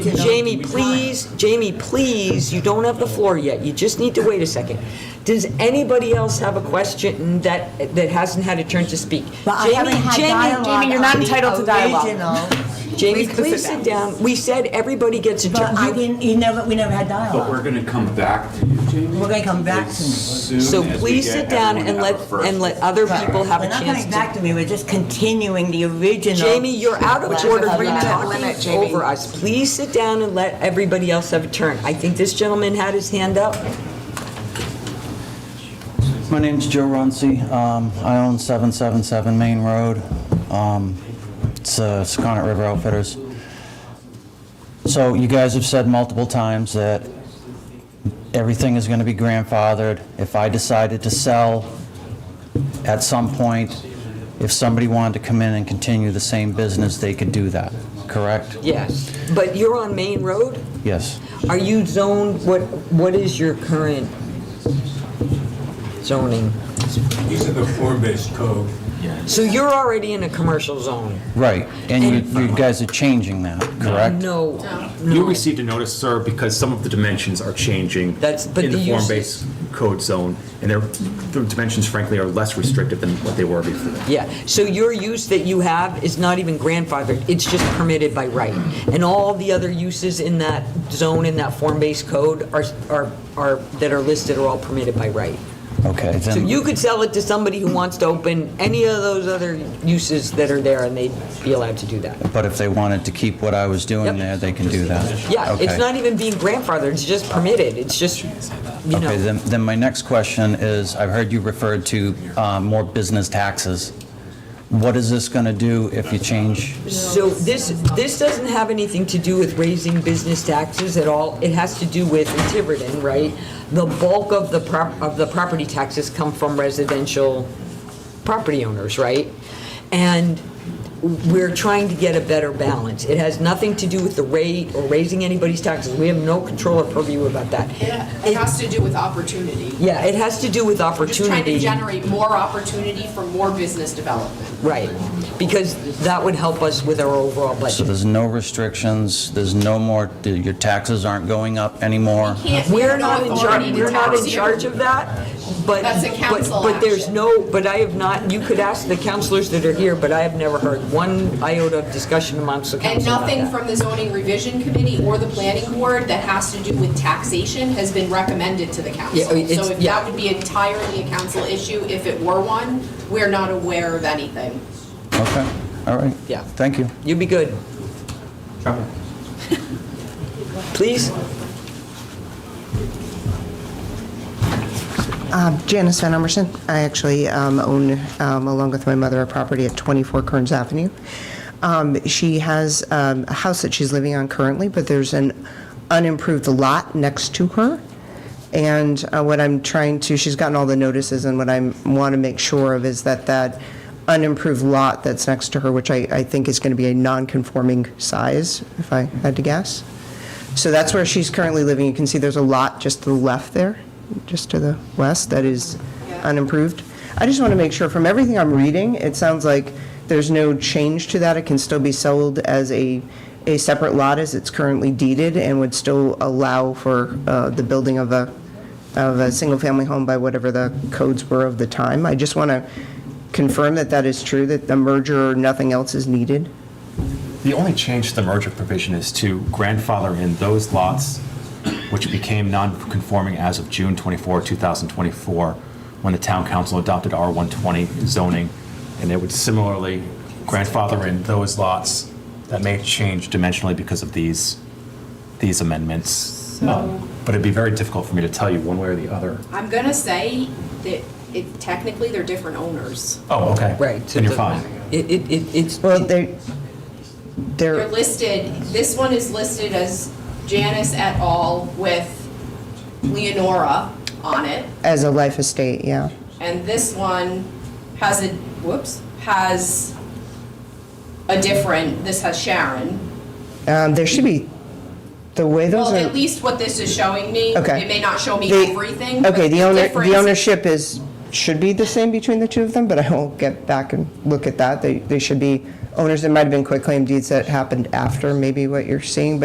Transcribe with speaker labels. Speaker 1: Jamie, please, Jamie, please, you don't have the floor yet. You just need to wait a second. Does anybody else have a question that, that hasn't had a turn to speak?
Speaker 2: But I
Speaker 1: Jamie,
Speaker 2: haven't had
Speaker 1: Jamie,
Speaker 2: dialogue
Speaker 3: Jamie, you're not
Speaker 2: on the
Speaker 3: entitled to dialogue.
Speaker 2: original.
Speaker 1: Jamie,
Speaker 2: Please go
Speaker 1: please sit down. We said everybody gets a
Speaker 2: But I
Speaker 1: turn. You-
Speaker 2: didn't, you never, we never had
Speaker 4: But
Speaker 2: dialogue.
Speaker 4: we're gonna come back to you, Jamie.
Speaker 2: We're gonna come back
Speaker 4: As
Speaker 2: to me.
Speaker 4: soon
Speaker 1: So
Speaker 4: as we
Speaker 1: please
Speaker 4: get
Speaker 1: sit down
Speaker 4: everyone
Speaker 1: and
Speaker 4: to
Speaker 1: let,
Speaker 4: have a first.
Speaker 1: and let other people have a
Speaker 2: We're not
Speaker 1: chance
Speaker 2: coming back
Speaker 1: to.
Speaker 2: to me, we're just continuing the original.
Speaker 1: Jamie, you're out of
Speaker 2: Which is
Speaker 1: order
Speaker 2: a
Speaker 1: for
Speaker 2: three-minute
Speaker 1: talking over us. Please sit down and let everybody else have a turn. I think this gentleman had his hand up.
Speaker 5: My name's Joe Runcie. Um, I own 777 Main Road. Um, It's uh, Secundit River Outfitters. So you guys have said multiple times that everything is going to be grandfathered. If I decided to sell at some point, if somebody wanted to come in and continue the same business, they could do that, correct?
Speaker 1: Yes. But you're on Main Road?
Speaker 5: Yes.
Speaker 1: Are you zoned, what, what is your current zoning?
Speaker 6: These are the form-based code.
Speaker 1: So you're already in a commercial zone?
Speaker 5: Right. And you- you guys are changing that, correct?
Speaker 1: No,
Speaker 7: You
Speaker 1: no.
Speaker 7: received a notice, sir, because some of the dimensions are changing.
Speaker 1: That's- but
Speaker 7: In the
Speaker 1: the use-
Speaker 7: form-based code zone, and their, their dimensions frankly are less restrictive than what they were before.
Speaker 1: Yeah, so your use that you have is not even grandfathered, it's just permitted by right. And all the other uses in that zone, in that form-based code are, are, are, that are listed are all permitted by right.
Speaker 5: Okay,
Speaker 1: So
Speaker 5: then,
Speaker 1: you could sell it to somebody who wants to open any of those other uses that are there, and they'd be allowed to do that.
Speaker 5: but if they wanted to keep what I was
Speaker 1: Yep.
Speaker 5: doing there, they can do that?
Speaker 1: Yeah, it's
Speaker 5: Okay.
Speaker 1: not even being grandfathered, it's just permitted, it's just, you
Speaker 5: Okay,
Speaker 1: know.
Speaker 5: then, then my next question is, I've heard you referred to uh, more business taxes. What is this going to do if you change?
Speaker 1: So this, this doesn't have anything to do with raising business taxes at all. It has to do with, in Tiverton, right? The bulk of the prop, of the property taxes come from residential property owners, right? And we're trying to get a better balance. It has nothing to do with the rate or raising anybody's taxes. We have no control or purview about that.
Speaker 3: It has to do with opportunity.
Speaker 1: Yeah, it has to do with opportunity.
Speaker 3: Just trying to generate more opportunity for more business development.
Speaker 1: Right, because that would help us with our overall
Speaker 5: So
Speaker 1: budget.
Speaker 5: there's no restrictions, there's no more, your taxes aren't going up anymore?
Speaker 3: Can't-
Speaker 1: We're
Speaker 3: have no
Speaker 1: not in
Speaker 3: authority
Speaker 1: charge,
Speaker 3: to
Speaker 1: we're not in
Speaker 3: tax you.
Speaker 1: charge of that, but.
Speaker 3: That's a
Speaker 1: but-
Speaker 3: council
Speaker 1: But there's
Speaker 3: action.
Speaker 1: no, but I have not, you could ask the counselors that are here, but I have never heard one iota of discussion amongst the
Speaker 3: And
Speaker 1: council about
Speaker 3: nothing
Speaker 1: that.
Speaker 3: from the zoning revision committee or the planning board that has to do with taxation has been recommended to the council.
Speaker 1: Yeah, I mean, it's-
Speaker 3: So if
Speaker 1: yeah.
Speaker 3: that would be entirely a council issue, if it were one, we're not aware of anything.
Speaker 5: Okay, all right.
Speaker 1: Yeah.
Speaker 5: Thank you.
Speaker 1: You'd be good. Please?
Speaker 8: Um, Janice Van Emerson. I actually um, own, um, along with my mother, a property at 24 Kearns Avenue. Um, She has um, a house that she's living on currently, but there's an unimproved lot next to her. And uh, what I'm trying to, she's gotten all the notices, and what I want to make sure of is that that unimproved lot that's next to her, which I I think is going to be a non-conforming size, if I had to guess. So that's where she's currently living. You can see there's a lot just to the left there, just to the west, that is unimproved. I just want to make sure, from everything I'm reading, it sounds like there's no change to that. It can still be sold as a, a separate lot as it's currently deeded and would still allow for uh, the building of a, of a single-family home by whatever the codes were of the time. I just want to confirm that that is true, that the merger or nothing else is needed.
Speaker 7: The only change to the merger provision is to grandfather in those lots which became non-conforming as of June 24, 2024, when the town council adopted R120 zoning, and it would similarly grandfather in those lots that may change dimensionally because of these, these amendments. Um, But it'd be very difficult for me to tell you one way or the other.
Speaker 3: I'm going to say that it- technically, they're different owners.
Speaker 7: Oh, okay.
Speaker 1: Right. so
Speaker 7: Then you're
Speaker 1: the-
Speaker 7: fine.
Speaker 1: It, it, it- it's.
Speaker 8: Well, they
Speaker 3: They're listed, this one is listed as Janice et al. with Leonora on it,
Speaker 8: As a life estate, yeah.
Speaker 3: and this one has a, whoops, has a different, this has Sharon.
Speaker 8: Um, There should be, the way those
Speaker 3: Well, at
Speaker 8: are,
Speaker 3: least what this is showing me.
Speaker 8: okay.
Speaker 3: It may not show me
Speaker 8: The-
Speaker 3: everything. but
Speaker 8: Okay, the owner,
Speaker 3: difference-
Speaker 8: the ownership is, should be the same between the two of them, but I will get back and look at that. They, they should be owners, there might have been quitclaim deeds that happened after maybe what you're seeing, but